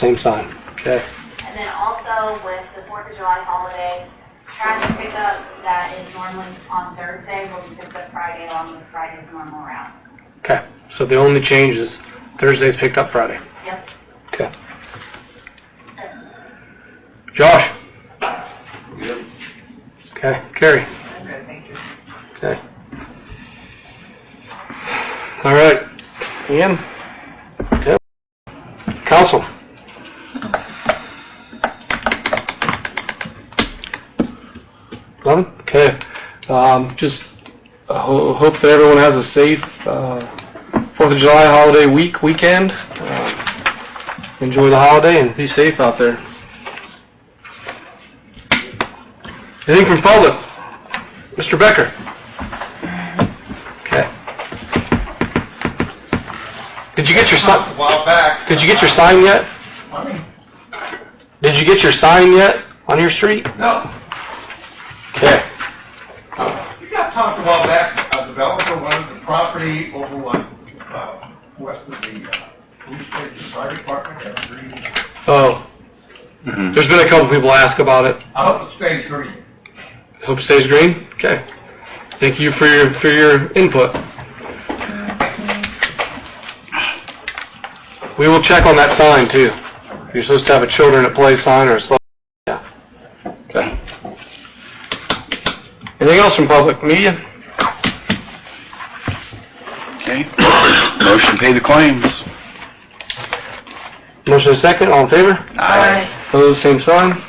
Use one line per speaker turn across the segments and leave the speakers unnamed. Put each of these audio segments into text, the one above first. Same time, okay?
And then also with the Fourth of July holiday, trash pickup that is normally on Thursday will be picked up Friday along with Friday's normal route.
Okay, so the only change is Thursday's picked up Friday.
Yep.
Okay. Josh? Okay, Carrie?
Okay, thank you.
Okay. All right. Ian? Yep. Council? Eleven? Okay. Um, just uh, ho- hope that everyone has a safe, uh, Fourth of July holiday week, weekend. Uh, Enjoy the holiday and be safe out there. Anything from public? Mr. Becker? Okay. Did you get your sign?
A while back.
Did you get your sign yet?
Money?
Did you get your sign yet on your street?
No. Uh,
Okay.
You got talked a while back, a developer wanted the property over on, uh, west of the, uh, police station, fire department, at Green.
Oh, there's been a couple people ask about it.
Out of uh, state green.
Hope it stays green. Okay. Thank you for your for your input. We will check on that sign too. You're supposed to have a children at play sign or a slow. Yeah. Okay. Anything else from public media?
Okay, motion to pay the claims.
Motion is second. All in favor?
Aye.
Opposed, same sign.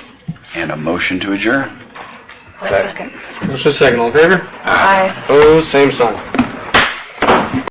And a motion to adjourn.
Motion is second. All in favor? Opposed, same sign.